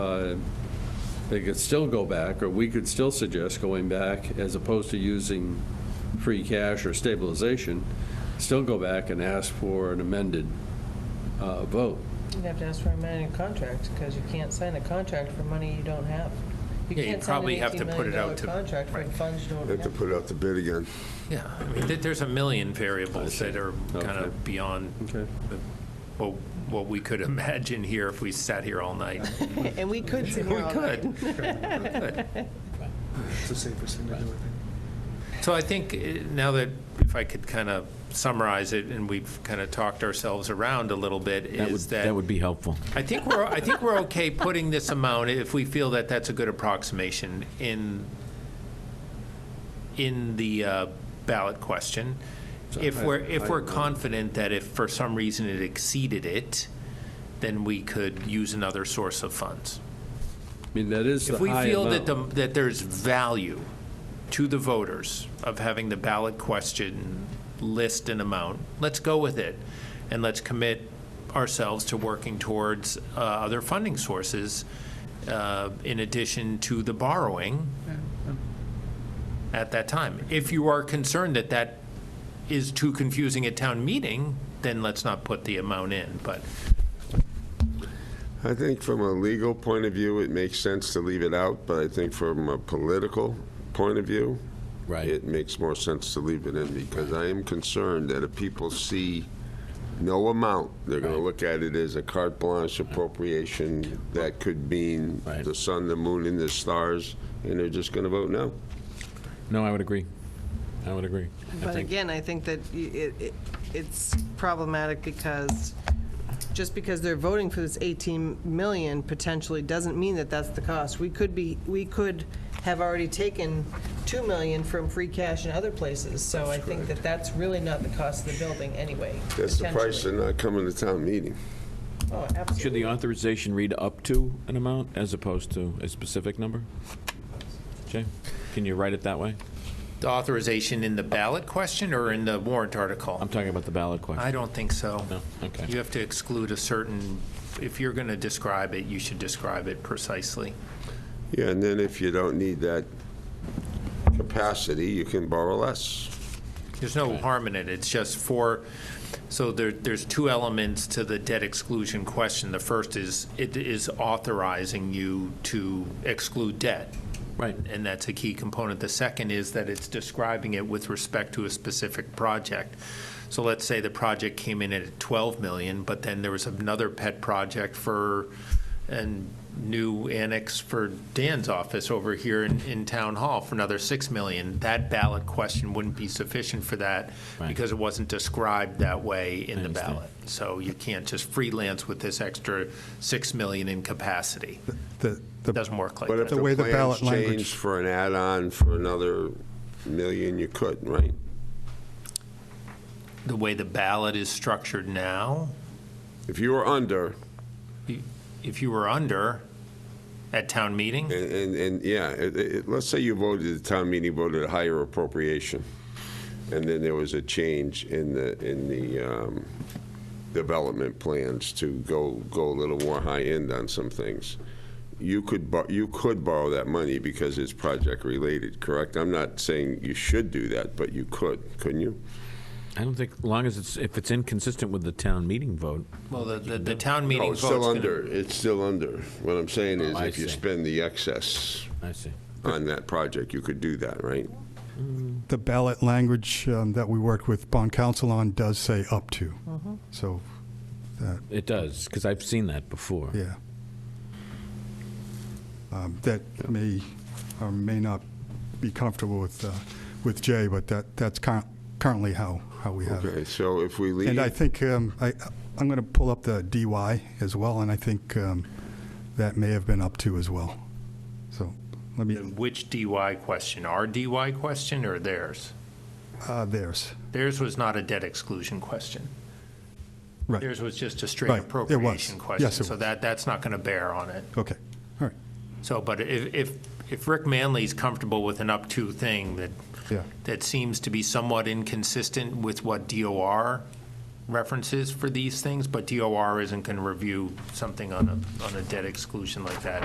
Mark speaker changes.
Speaker 1: uh, they could still go back, or we could still suggest going back, as opposed to using free cash or stabilization, still go back and ask for an amended uh, vote.
Speaker 2: You'd have to ask for a amended contract, because you can't sign a contract for money you don't have. You
Speaker 3: Yeah, you
Speaker 2: can't sign an
Speaker 3: probably have to
Speaker 2: $18
Speaker 3: put it out
Speaker 2: million
Speaker 3: to-
Speaker 2: Contract for
Speaker 3: right.
Speaker 2: funds you don't
Speaker 4: Have to
Speaker 2: have.
Speaker 4: put it out to bid again.
Speaker 3: Yeah, I mean, there- there's a million variables
Speaker 1: see.
Speaker 3: that are kind
Speaker 1: Okay.
Speaker 3: of beyond
Speaker 1: Okay.
Speaker 3: the- what what we could imagine here if we sat here all night.
Speaker 2: And we could sit
Speaker 3: We
Speaker 2: here all night.
Speaker 3: could. We could.
Speaker 5: It's the safest thing to do, I think.
Speaker 3: So I think eh, now that, if I could kind of summarize it, and we've kind of talked ourselves around a little bit,
Speaker 6: That would,
Speaker 3: is that.
Speaker 6: that would be helpful.
Speaker 3: I think we're, I think we're okay putting this amount, if we feel that that's a good approximation, in, in the uh, ballot question. If
Speaker 1: So I-
Speaker 3: we're, if we're
Speaker 1: I-
Speaker 3: confident that if for some reason it exceeded it, then we could use another source of funds.
Speaker 1: I mean, that is the
Speaker 3: If we
Speaker 1: high
Speaker 3: feel that, the
Speaker 1: amount.
Speaker 3: that there's value to the voters of having the ballot question list an amount, let's go with it. And let's commit ourselves to working towards uh, other funding sources uh, in addition to the borrowing at that time. If you are concerned that that is too confusing at town meeting, then let's not put the amount in. But
Speaker 4: I think from a legal point of view, it makes sense to leave it out, but I think from a political point of view,
Speaker 6: Right.
Speaker 4: it makes more sense to leave it in, because I am concerned that if people see no amount, they're going to look at it as a carte blanche appropriation that could mean
Speaker 6: Right.
Speaker 4: the sun, the moon, and the stars, and they're just going to vote no.
Speaker 6: No, I would agree. I would agree. I
Speaker 2: But
Speaker 6: think-
Speaker 2: again, I think that y- it, it- it's problematic because, just because they're voting for this 18 million potentially doesn't mean that that's the cost. We could be, we could have already taken 2 million from free cash in other places, so I think that that's really not the cost of the building anyway.
Speaker 4: That's the price of
Speaker 2: potentially.
Speaker 4: not coming to town meeting.
Speaker 2: Oh,
Speaker 6: Should
Speaker 2: absolutely.
Speaker 6: the authorization read up to an amount as opposed to a specific number? Jay, can you write it that way?
Speaker 3: the authorization in the ballot question or in the warrant article?
Speaker 6: I'm talking about the ballot question.
Speaker 3: I don't think so.
Speaker 6: No? Okay.
Speaker 3: You have to exclude a certain, if you're going to describe it, you should describe it precisely.
Speaker 4: Yeah, and then if you don't need that capacity, you can borrow less.
Speaker 3: There's no harm in it, it's just for, so there, there's two elements to the debt exclusion question. The first is, it is authorizing you to exclude debt.
Speaker 6: Right.
Speaker 3: And that's a key component. The second is that it's describing it with respect to a specific project. So let's say the project came in at 12 million, but then there was another pet project for, a new annex for Dan's office over here in, in Town Hall for another 6 million. That ballot question wouldn't be sufficient for that
Speaker 6: Right.
Speaker 3: because it wasn't described that way in the
Speaker 6: understand.
Speaker 3: ballot. So you can't just freelance with this extra 6 million in capacity.
Speaker 5: The, the-
Speaker 3: Doesn't work like
Speaker 4: But
Speaker 3: that.
Speaker 4: if
Speaker 5: The way the
Speaker 4: plans
Speaker 5: ballot language-
Speaker 4: changed for an add-on for another million, you could, right?
Speaker 3: the way the ballot is structured now,
Speaker 4: If you were under,
Speaker 3: if you were under at town meeting,
Speaker 4: and, and, and yeah, it, it, let's say you voted, the town meeting voted a higher appropriation, and then there was a change in the, in the, um, development plans to go, go a little more high-end on some things. You could, bor- you could borrow that money because it's project-related, correct? I'm not saying you should do that, but you could, couldn't you?
Speaker 6: I don't think, long as it's, if it's inconsistent with the town meeting vote,
Speaker 3: well, the, the, the town meeting
Speaker 4: No,
Speaker 3: vote's
Speaker 4: Oh, it's still
Speaker 3: gonna-
Speaker 4: under, it's still under. What I'm saying is,
Speaker 6: Oh, I
Speaker 4: if you
Speaker 6: see.
Speaker 4: spend the excess
Speaker 6: I see.
Speaker 4: on that project, you could do that, right?
Speaker 5: the ballot language um, that we worked with bond council on does say up to. So, that,
Speaker 6: It does, because I've seen that before.
Speaker 5: yeah. Um, That may, or may not be comfortable with, uh, with Jay, but that, that's cur- currently how, how we have it.
Speaker 4: Okay, so if we leave,
Speaker 5: And I think, um, I, I'm going to pull up the DY as well, and I think um, that may have been up to as well. So, let me,
Speaker 3: Which DY question, our DY question or theirs?
Speaker 5: uh, there's,
Speaker 3: Theirs was not a debt exclusion question.
Speaker 5: right.
Speaker 3: Theirs was just a straight
Speaker 5: Right, it was.
Speaker 3: appropriation question.
Speaker 5: Yes, it
Speaker 3: So
Speaker 5: was.
Speaker 3: that, that's not gonna bear on it.
Speaker 5: Okay, all right,
Speaker 3: So, but if, if, if Rick Manley's comfortable with an up-to thing that,
Speaker 5: Yeah.
Speaker 3: that seems to be somewhat inconsistent with what DOR references for these things, but DOR isn't going to review something on a, on a debt exclusion like that